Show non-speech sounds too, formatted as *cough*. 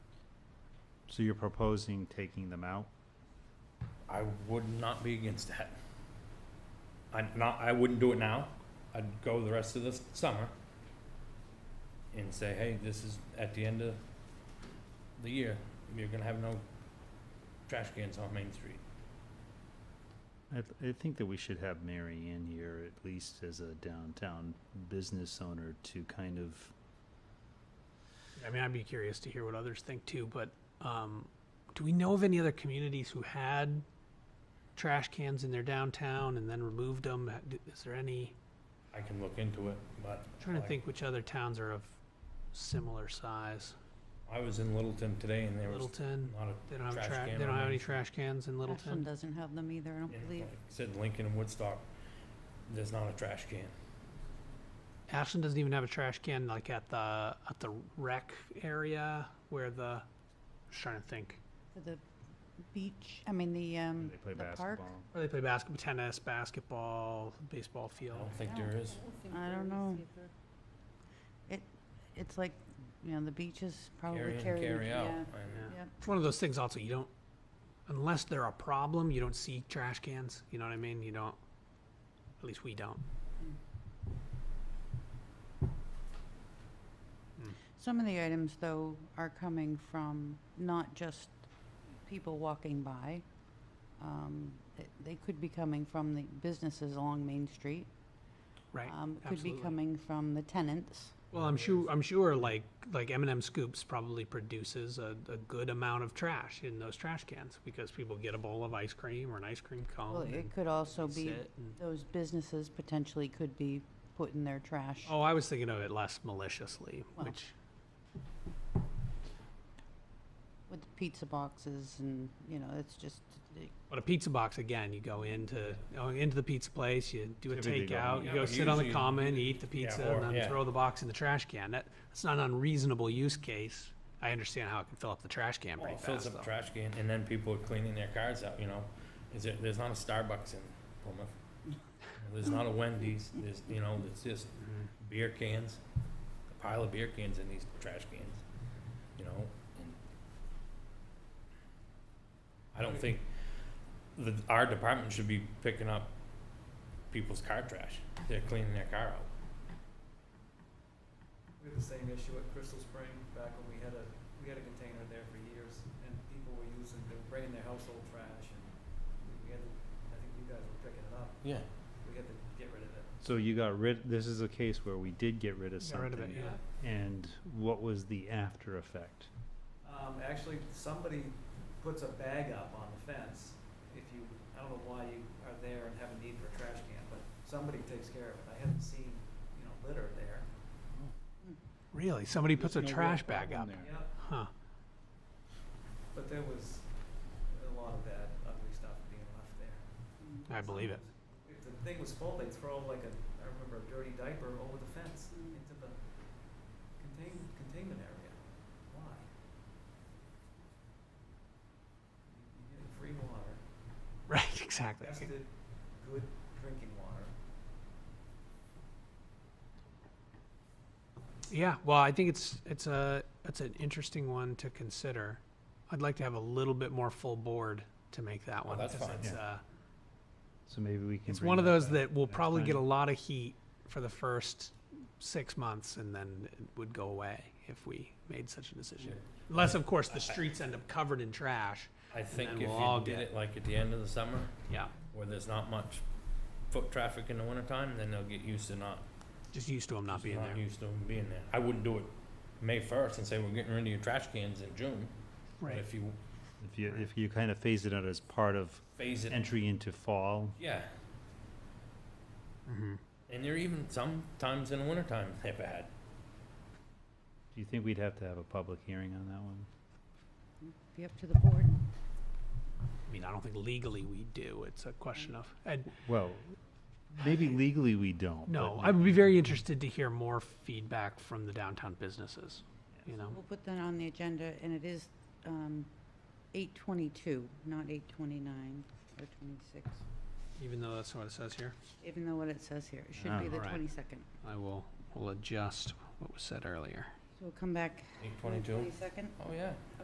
So you're proposing taking them out? I would not be against that. I'd not, I wouldn't do it now. I'd go the rest of the summer and say, hey, this is at the end of the year, you're gonna have no trash cans on Main Street. I, th- I think that we should have Mary in here at least as a downtown business owner to kind of, I mean, I'd be curious to hear what others think too, but um, do we know of any other communities who had trash cans in their downtown and then removed them? Ha- d- Is there any? I can look into it, but. I'm trying to like, think which other towns are of similar size. I was in Littleton today and there was Littleton, not a, they don't have trash trash. can They on don't have Main any Street. trash cans in Ashland Littleton. doesn't have them either, I don't and believe. like I said Lincoln and Woodstock, there's not a trash can. Ashland doesn't even have a trash can like at the at the rec area where the. Just trying to think. For the beach, I mean, the, um, they play the park. basketball. Where they play basketball, tennis, basketball, baseball I field. don't think there is. I don't know. It, it's like, you know, the beaches Carry probably in, carry. carry out. yeah. and- Yeah. Yep. It's one of those things also you don't unless they're a problem, you don't see trash cans. You know what I mean? You don't at least we don't. Some of the items, though, are coming from not just people walking by. Um, it- They could be coming from the businesses along Main Street. Right. Um, it Could be absolutely. coming from the tenants. Well I'm sure I'm sure like like M&M Scoops probably produces a, a good amount of trash in those trash cans because people get a bowl of ice cream or an ice cream cone. Well, and It could also be, sit and- those businesses potentially could be putting their trash. Oh, I was thinking of it less maliciously, Well. which with the pizza boxes and, you know, it's just, it- but a pizza box again, you go into oh, into the pizza place, you do a Typically go takeout, eat. you Yeah, go but sit on the usually- common, you eat the Yeah, pizza, or- and then yeah. throw the box in the trash can. That that's not an unreasonable use case. I understand how it can fill up the trash can Well, pretty it fast. fills up though. trash can, and then people are cleaning their cars out, you know? Is there, there's not a Starbucks in Plymouth. There's not a Wendy's, there's, you know, it's just Mhm. beer cans, a pile of beer cans in these trash cans, you know? and I don't think that our department should be picking up people's car trash. They're cleaning their car out. We had the same issue at Crystal Spring back when we had a, we had a container there for years and people were using, they were bringing their household trash and we- we had, to- I think you guys were picking it up. Yeah. We had to get rid of it. So you got rid, this is a case where we did get rid of Got rid of it, something. yeah. And what was the after effect? Um, actually, somebody puts a bag up on the fence. If you, I don't know why you are there and have a need for a trash can, but somebody takes care of it. I haven't seen, you know, litter there. Really, somebody puts a There's no real trash bag up, problem there. Yep, huh? but there was a lot of bad ugly stuff being left there. I believe it. If the thing was full, they'd throw like a, I remember a dirty diaper over the fence Mm. into the contain, containment area. Why? You're getting free water, *laughs* Right, exactly. tested, good drinking water. Yeah, well, I think it's it's a it's an interesting one to consider. I'd like to have a little bit more full board to make that Oh, one. that's because fine. It's, Yeah. uh, So maybe we can. It's bring one of those back that will next probably get a time. lot of heat for the first six months and then it would go away if we made such a decision. Unless, of course, the streets end up covered in trash. I think then if we'll all you did get- it like at the end of the summer, Yeah. where there's not much foot traffic in the wintertime, then they'll get used to not, Just used to them not being not there. used to 'em being there. I wouldn't do it May first and say we're getting rid of your trash cans in June. But Right. if you If you, if you kind of phase it out as part of phase it, entry into fall, yeah. Mhm. And there are even sometimes in the wintertime they're bad. do you think we'd have to have a public hearing on that one? be up to the board. I mean, I don't think legally we do. It's a question of, and Well, maybe legally we don't. no, but I would be very interested to hear more feedback from the downtown businesses, you know? We'll put that on the agenda, and it is um, 8:22, not 8:29 or 26, Even though that's what it says here, even though what it says here, it should be Oh. the All right. 22nd. I will, will adjust what was said earlier. So we'll come back Eight on the twenty-two. 22nd. Oh, yeah.